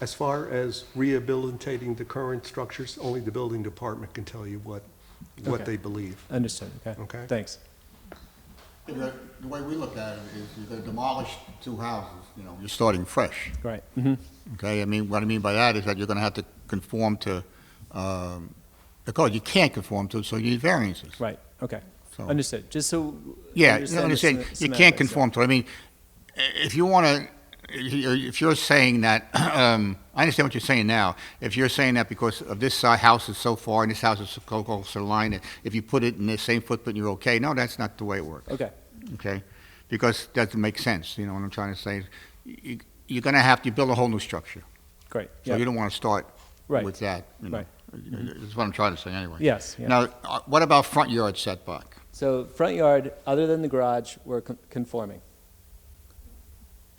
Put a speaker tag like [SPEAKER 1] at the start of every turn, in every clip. [SPEAKER 1] As far as rehabilitating the current structures, only the building department can tell you what, what
[SPEAKER 2] Okay.
[SPEAKER 1] they believe.
[SPEAKER 2] Understood, okay.
[SPEAKER 1] Okay.
[SPEAKER 2] Thanks.
[SPEAKER 3] The the way we look at it is you they demolished two houses, you know, you're starting fresh,
[SPEAKER 2] Right, mhm,
[SPEAKER 3] okay? I mean, what I mean by that is that you're going to have to conform to um, the code. You can't conform to, it, so you need variances.
[SPEAKER 2] right, okay.
[SPEAKER 3] So-
[SPEAKER 2] Understood, just so.
[SPEAKER 3] Yeah, you
[SPEAKER 2] understand the sem-
[SPEAKER 3] understand, you can't
[SPEAKER 2] semantics, yeah.
[SPEAKER 3] conform to, it. I mean, i- if you want to, if you're saying that, um, I understand what you're saying now, if you're saying that because of this si- house is so far and this house is so close to the line, and if you put it in the same footprint, you're okay, no, that's not the way it works.
[SPEAKER 2] Okay,
[SPEAKER 3] okay? Because that doesn't make sense, you know what I'm trying to say? You- You're going to have to build a whole new structure,
[SPEAKER 2] great,
[SPEAKER 3] so
[SPEAKER 2] yeah.
[SPEAKER 3] you don't want to start
[SPEAKER 2] Right.
[SPEAKER 3] with that, you know?
[SPEAKER 2] Right.
[SPEAKER 3] That's what I'm trying to say, anyway.
[SPEAKER 2] Yes, yeah.
[SPEAKER 3] Now, uh, what about front yard setback?
[SPEAKER 2] So front yard, other than the garage, we're con- conforming.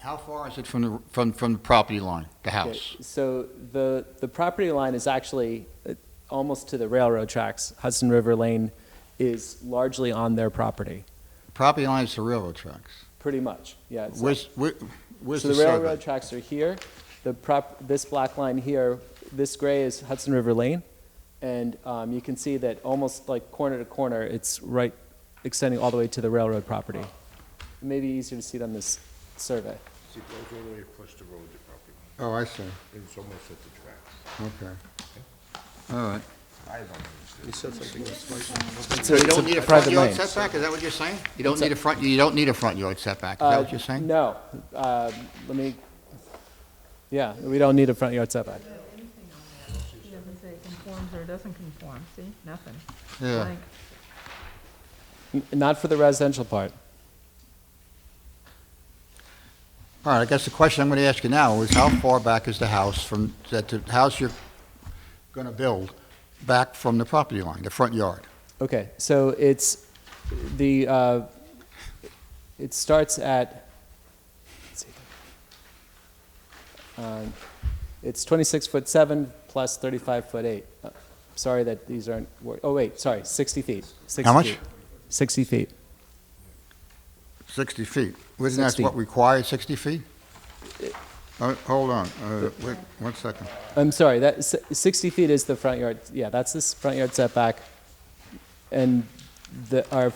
[SPEAKER 3] How far is it from the, from, from the property line, the
[SPEAKER 2] Okay,
[SPEAKER 3] house?
[SPEAKER 2] So the, the property line is actually uh, almost to the railroad tracks. Hudson River Lane is largely on their property,
[SPEAKER 3] Property line is the railroad tracks.
[SPEAKER 2] pretty much, yeah. it's-
[SPEAKER 3] Where's, where- where's
[SPEAKER 2] So
[SPEAKER 3] the
[SPEAKER 2] the railroad
[SPEAKER 3] survey?
[SPEAKER 2] tracks are here, the prop, this black line here, this gray is Hudson River Lane, and um, you can see that almost like corner to corner, it's right extending all the way to the railroad property. It may be easier to see it on this survey.
[SPEAKER 4] It goes all the way across the road, the property,
[SPEAKER 3] Oh, I see,
[SPEAKER 4] and it's almost at the tracks.
[SPEAKER 3] okay. All right.
[SPEAKER 4] I don't understand.
[SPEAKER 1] You said something else, Mike?
[SPEAKER 2] It's
[SPEAKER 3] So
[SPEAKER 2] a-
[SPEAKER 3] you
[SPEAKER 2] it's
[SPEAKER 3] don't need a front
[SPEAKER 2] private
[SPEAKER 3] yard
[SPEAKER 2] lane.
[SPEAKER 3] setback, is that what you're saying? You don't need a front, you don't need a front yard setback, is
[SPEAKER 2] Uh,
[SPEAKER 3] that what you're saying?
[SPEAKER 2] No, Um let me, yeah, we don't need a front yard setback.
[SPEAKER 5] It doesn't say it conforms or doesn't conform, see, nothing.
[SPEAKER 3] Yeah.
[SPEAKER 5] Blank.
[SPEAKER 2] N- Not for the residential part.
[SPEAKER 3] All right, I guess the question I'm going to ask you now is how far back is the house from, that the house you're going to build back from the property line, the front yard?
[SPEAKER 2] Okay, so it's the, uh, it starts at, let's see. Um, it's 26 foot 7 plus 35 foot 8. Uh, Sorry that these aren't, wor- oh wait, sorry, 60 feet. 60
[SPEAKER 3] much?
[SPEAKER 2] feet. 60 feet.
[SPEAKER 3] 60 feet. Isn't that
[SPEAKER 2] 60.
[SPEAKER 3] what required, 60 feet? Uh, Hold on, uh, wait, one second.
[SPEAKER 2] I'm sorry, that, s- 60 feet is the front yard, yeah, that's this front yard setback. And the, our,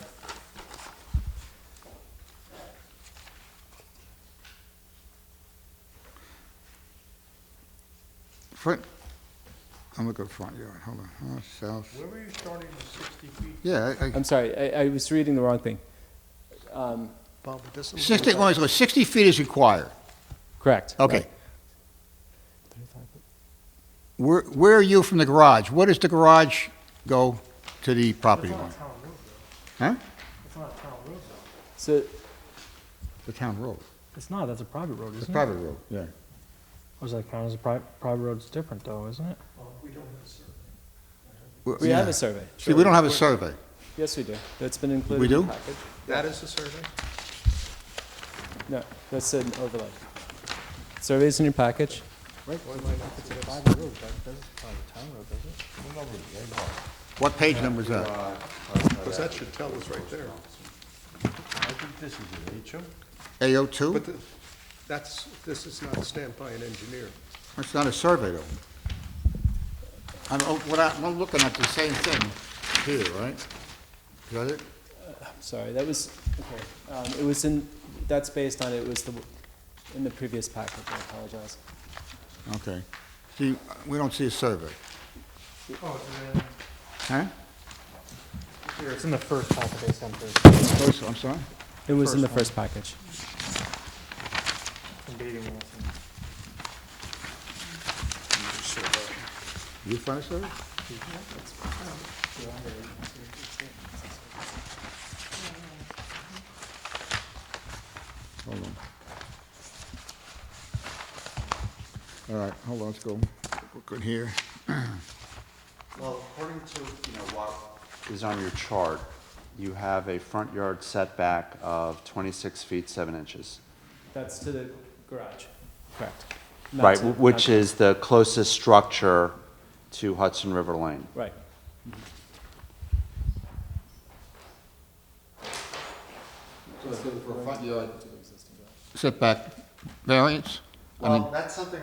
[SPEAKER 3] Front, I'm looking at front yard, hold on, Uh, south,
[SPEAKER 4] Where were you starting the sixty feet?
[SPEAKER 3] yeah, I- I-
[SPEAKER 2] I'm sorry, I, I was reading the wrong thing.
[SPEAKER 1] Bob, it doesn't.
[SPEAKER 3] 60, well, so 60 feet is required,
[SPEAKER 2] Correct.
[SPEAKER 3] okay.
[SPEAKER 2] right.
[SPEAKER 3] Where, where are you from the garage? Where does the garage go to the property line? Huh?
[SPEAKER 2] So,
[SPEAKER 3] The town road,
[SPEAKER 6] It's not, that's a private road,
[SPEAKER 3] it's
[SPEAKER 6] isn't
[SPEAKER 3] a
[SPEAKER 6] it?
[SPEAKER 3] private road, yeah.
[SPEAKER 6] I was like, how is a private, private road's different though, isn't it?
[SPEAKER 2] we have a survey.
[SPEAKER 3] See, we
[SPEAKER 2] surely.
[SPEAKER 3] don't have a survey.
[SPEAKER 2] Yes, we do. That's been included.
[SPEAKER 3] We
[SPEAKER 2] in the
[SPEAKER 3] do?
[SPEAKER 2] package.
[SPEAKER 1] That is the survey?
[SPEAKER 2] No, that's an overlay. Survey's in your package.
[SPEAKER 3] What page number is that?
[SPEAKER 1] Because that should tell us right there.
[SPEAKER 4] I think this is an HO.
[SPEAKER 1] But
[SPEAKER 3] AO2?
[SPEAKER 1] the- that's, this is not stamped by an engineer.
[SPEAKER 3] That's not a survey, though. I'm, oh, what I- I'm looking at the same thing here, right? Is that it?
[SPEAKER 2] Sorry, that was, okay. Um, it was in, that's based on, it was the, in the previous package, I apologize.
[SPEAKER 3] Okay. See, we don't see a survey. Oh, Huh?
[SPEAKER 6] Here, it's in the first half of the center,
[SPEAKER 3] Close, Oh, I'm sorry?
[SPEAKER 2] It was in the first package.
[SPEAKER 6] in dating Wilson.
[SPEAKER 3] You find a survey? Hold on. All right, hold on, let's go. Look in here.
[SPEAKER 7] Well, according to, you know, what is on your chart, you have a front yard setback of 26 feet 7 inches.
[SPEAKER 2] That's to the garage. Correct. Not
[SPEAKER 7] Right,
[SPEAKER 2] to-
[SPEAKER 7] wh- which
[SPEAKER 2] not-
[SPEAKER 7] is the closest structure to Hudson River Lane.
[SPEAKER 2] Right.
[SPEAKER 3] Setback variance? I mean-
[SPEAKER 7] that's something